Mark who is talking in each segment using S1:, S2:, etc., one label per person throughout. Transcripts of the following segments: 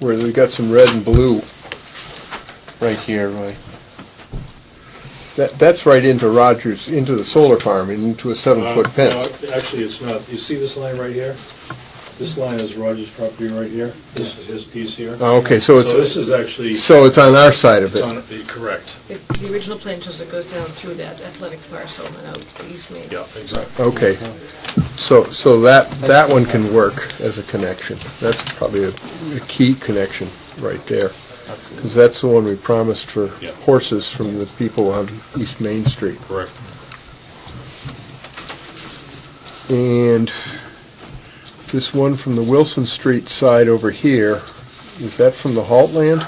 S1: where we got some red and blue.
S2: right here, Roy.
S1: That, that's right into Rogers, into the solar farm, and into a seven-foot
S3: Uh,
S1: fence.
S3: no, Actually, it's not. You see this line right here? This line is Roger's property right here. This is his piece here.
S1: Oh, Okay, so
S3: So this
S1: it's,
S3: is actually,
S1: so it's on our side of
S3: it's
S1: it.
S3: on, the- correct.
S4: It- The original plan shows it goes down through that athletic parcel and out to East Main.
S3: Yeah, exactly.
S1: Okay, so, so that, that one can work as a connection. That's probably a, a key connection right there. Because that's the one we promised for
S3: Yeah.
S1: horses from the people on East Main Street.
S3: Correct.
S1: And this one from the Wilson Street side over here, is that from the Halt Land?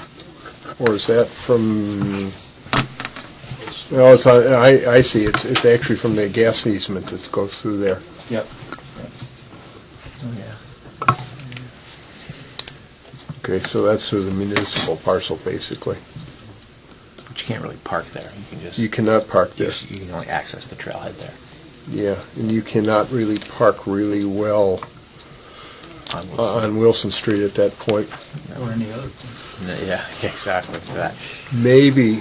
S1: Or is that from, no, it's, on- I, I see, it's, it's actually from the gas easement that goes through there.
S2: Yep.
S1: Okay, so that's through the municipal parcel, basically.
S5: But you can't really park there. You can just
S1: You cannot park
S5: you,
S1: there.
S5: you can only access the trailhead there
S1: Yeah, and you cannot really park really well
S5: on
S1: uh,
S5: Wilson.
S1: on Wilson Street at that point.
S6: Or any other.
S5: No, yeah, exactly for that.
S1: Maybe,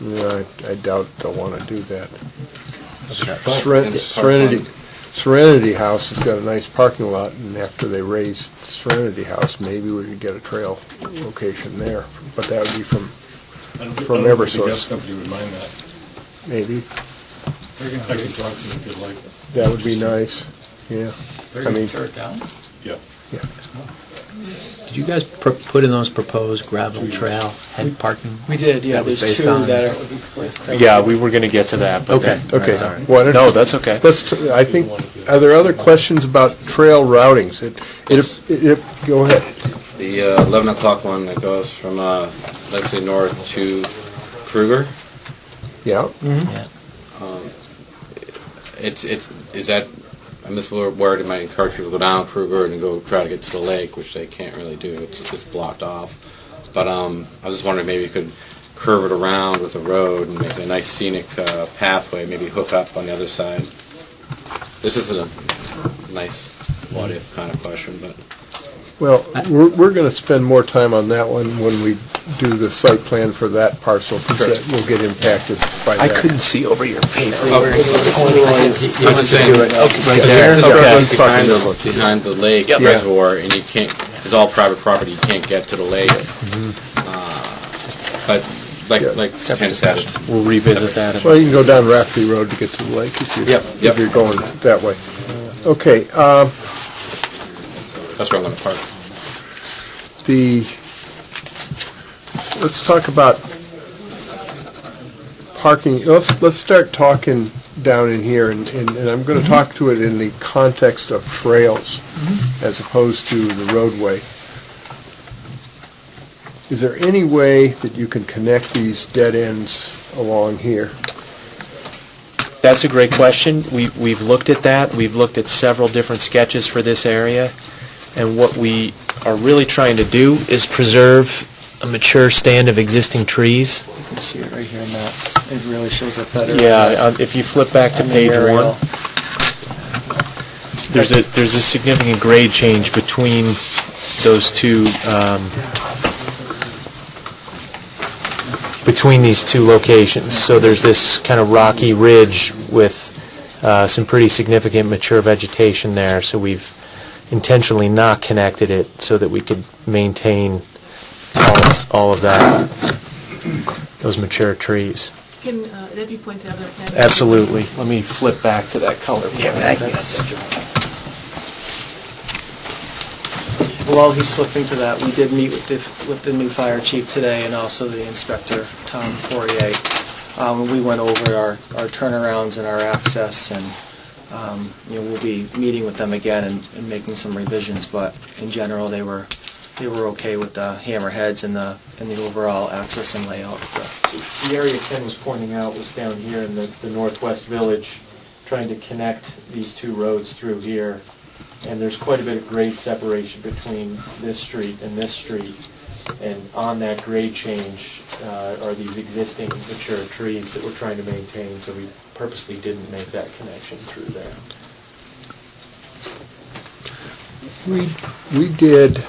S1: yeah, I- I doubt they'll want to do that. Seren- Serenity, Serenity House has got a nice parking lot, and after they raise Serenity House, maybe we could get a trail location there. But that would be from,
S3: I don't- I
S1: From
S3: don't think
S1: Eversource.
S3: The gas company would mind that.
S1: maybe,
S3: I can talk to them if you'd like.
S1: that would be nice, yeah.
S6: They're
S1: I
S6: gonna
S1: mean-
S6: tear it down?
S3: Yeah.
S7: Did you guys pr- put in those proposed gravel trail head parking?
S6: We did,
S7: yeah, That was there's based two on- that
S6: are.
S2: Yeah, we were gonna get to that, but
S7: Okay,
S2: then-
S1: Okay.
S7: Sorry.
S1: Why don't-
S2: No, that's okay.
S1: Let's, t- I think, are there other questions about trail routings? It, it, it, go ahead.
S8: The uh, 11 o'clock one that goes from uh, Lexington North to Kruger,
S1: Yeah,
S5: Mm-hmm.
S7: Yeah.
S8: it's, it's, is that, I miss the word, it might encourage people to go down Kruger and go try to get to the lake, which they can't really do, it's just blocked off. But um, I was just wondering, maybe you could curve it around with a road and make a nice scenic uh, pathway, maybe hook up on the other side. This isn't a nice what-if kind of question, but
S1: well, we're, we're gonna spend more time on that one when we do the site plan for that parcel, because that will get impacted by
S2: I
S1: that.
S2: couldn't see over your paper.
S8: I was just saying,
S1: Right there,
S8: There's
S1: okay.
S8: structures behind the, behind the lake
S1: Yep.
S8: reservoir, and you can't, it's all private property, you can't get to the lake. Uh, But like,
S1: Yeah.
S8: like
S5: Separate
S8: Ken said, it's,
S2: We'll revisit that.
S1: Well, you can go down Rafferty Road to get to the lake if you're,
S8: Yep,
S1: if
S8: yep.
S1: you're going that way. Okay, um,
S8: that's where I'm gonna park.
S1: the, let's talk about parking, let's, let's start talking down in here, and, and and I'm gonna talk to it in the context of trails
S8: Mm-hmm.
S1: as opposed to the roadway. Is there any way that you can connect these dead ends along here?
S2: That's a great question. We, we've looked at that. We've looked at several different sketches for this area. And what we are really trying to do is preserve a mature stand of existing trees.
S6: You can see it right here, Matt. It really shows up better.
S2: Yeah, uh, if you flip back to
S6: On the
S2: page one,
S6: aerial.
S2: there's a, there's a significant grade change between those two, um, between these two locations. So there's this kind of rocky ridge with uh, some pretty significant mature vegetation there. So we've intentionally not connected it so that we could maintain all- all of that, those mature trees.
S4: Can uh, that be pointed out on the plan?
S2: Absolutely. Let me flip back to that color. Yeah,
S9: While he's flipping to that, we did meet with the, with the new fire chief today and also the inspector, Tom Poirier. Um, we went over our, our turnarounds and our access and, um, you know, we'll be meeting with them again and, and making some revisions, but in general, they were, they were okay with the hammerheads and the, and the overall access and layout of the
S2: The area Ken was pointing out was down here in the, the northwest village, trying to connect these two roads through here. And there's quite a bit of grade separation between this street and this street. And on that grade change uh, are these existing mature trees that we're trying to maintain, so we purposely didn't make that connection through there.
S1: We, we did,